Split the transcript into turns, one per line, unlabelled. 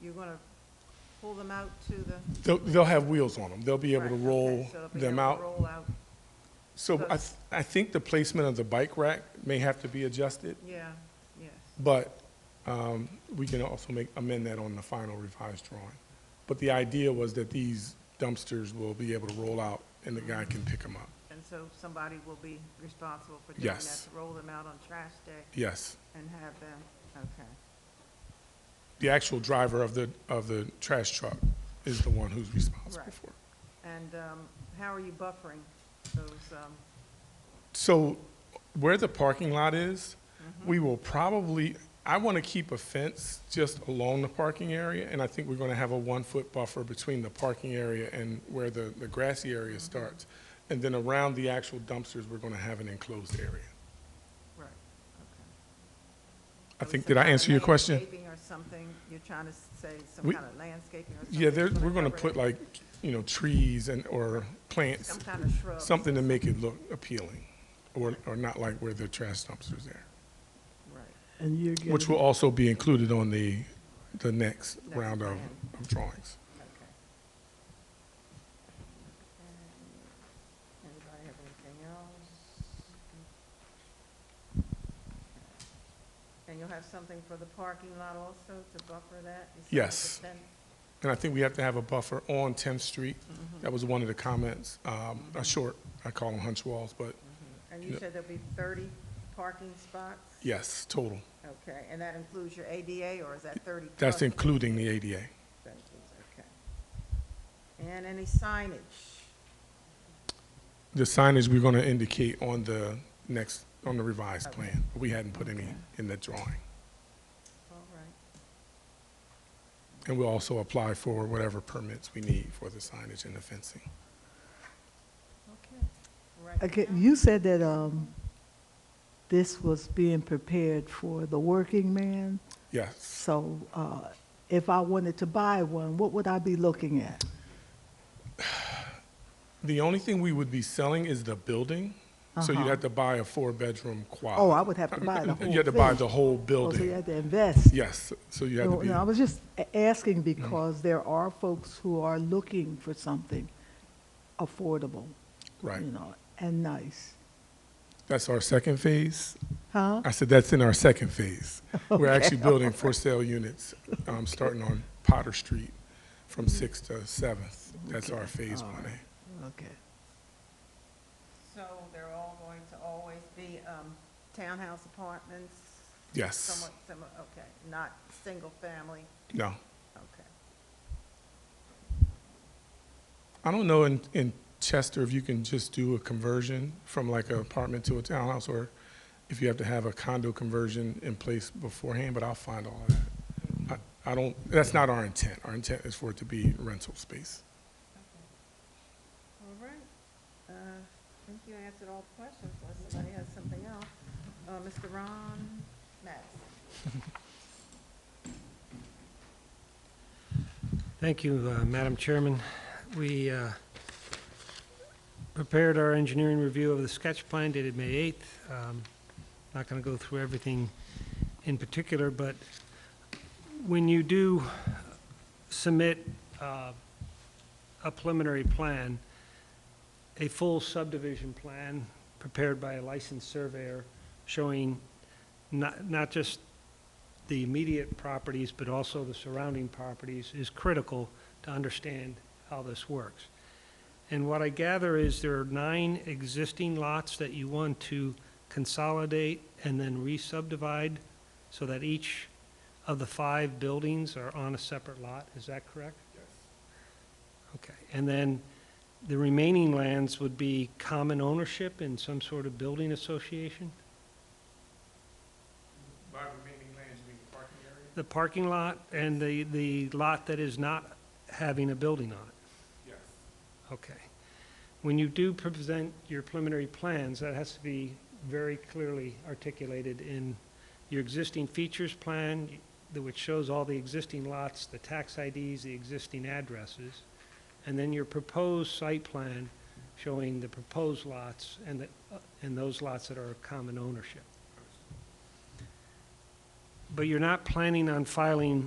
you're gonna pull them out to the?
They'll, they'll have wheels on them. They'll be able to
Right, okay,
roll
so they'll be
them
able to
out.
Roll out,
So I, th- I think the placement of the bike rack may have to be adjusted,
yeah, yes,
but um, we can also make, amend that on the final revised drawing. But the idea was that these dumpsters will be able to roll out and the guy can pick them up.
and so somebody will be responsible for doing that,
Yes.
to roll them out on trash day
Yes.
and have them, okay.
The actual driver of the, of the trash truck is the one who's responsible
Right.
for it.
And, um, how are you buffering those, um,
So where the parking lot is,
Mm-hmm.
we will probably, I want to keep a fence just along the parking area, and I think we're going to have a one-foot buffer between the parking area and where the, the grassy
Mm-hmm.
area starts. And then around the actual dumpsters, we're going to have an enclosed area.
right, okay.
I
So
think,
it's some
did I
kind of
answer your question?
Landscaping or something, you're trying to say some
We-
kind of landscaping or something?
Yeah, there,
that's
we're going to
cover
put
it?
like, you know, trees and, or plants,
Some kind of shrub.
something to make it look appealing, or, or not like where the trash dumpsters are.
Right.
And you're getting.
Which will also be included on the, the next
Next
round of,
plan.
of drawings.
Okay. Anybody have anything else? And you'll have something for the parking lot also to buffer that? You said with the
Yes.
fence?
And I think we have to have a buffer on 10th Street.
Mm-hmm.
That was one of the comments, um, a short, I call them hunch walls, but
And you
Yeah.
said there'll be thirty parking spots?
yes, total.
Okay, and that includes your ADA, or is that thirty plus?
That's including the ADA.
That includes, Okay. And any signage?
The signage we're going to indicate on the next, on the revised
Okay.
plan. We hadn't put any
Okay.
in the drawing.
All right,
And we'll also apply for whatever permits we need for the signage and the fencing.
okay. Right
Okay,
now-
you said that, um, this was being prepared for the working man.
Yes.
So, uh, if I wanted to buy one, what would I be looking at?
The only thing we would be selling is the building. So you'd
Uh-huh.
have to buy a four-bedroom quad.
Oh, I would have to buy the whole
You had to buy
thing.
the whole
Oh, So you
building.
had to invest.
Yes, so you had to
No,
be,
no, I was just a- asking because there are folks who are looking for something affordable,
right.
you know, and nice.
That's our second phase.
Huh?
I said, that's in our second phase. We're actually building for sale units, um, starting on Potter Street from Sixth to Seventh. That's our phase
all
one
right.
A.
Okay.
So they're all going to always be um, townhouse apartments?
Yes.
Somewhat similar, okay, not single-family,
No.
okay.
I don't know in, in Chester if you can just do a conversion from like an apartment to a townhouse or if you have to have a condo conversion in place beforehand, but I'll find all of that. I, I don't, that's not our intent. Our intent is for it to be rental space.
All right. Uh, I think you answered all the questions, unless somebody has something else. Uh, Mr. Ron Madison?
Thank you, uh, Madam Chairman. We uh, prepared our engineering review of the sketch plan dated May 8th. Um, Not going to go through everything in particular, but when you do submit uh, a preliminary plan, a full subdivision plan prepared by a licensed surveyor showing not not just the immediate properties, but also the surrounding properties, is critical to understand how this works. And what I gather is there are nine existing lots that you want to consolidate and then re-subdivide so that each of the five buildings are on a separate lot, is that correct? Yes. Okay, and then the remaining lands would be common ownership in some sort of building association?
By remaining lands, you mean the parking area?
The parking lot and the, the lot that is not having a building on it,
Yes.
okay. When you do present your preliminary plans, that has to be very clearly articulated in your existing features plan, the- which shows all the existing lots, the tax IDs, the existing addresses, and then your proposed site plan showing the proposed lots and the, and those lots that are of common ownership. But you're not planning on filing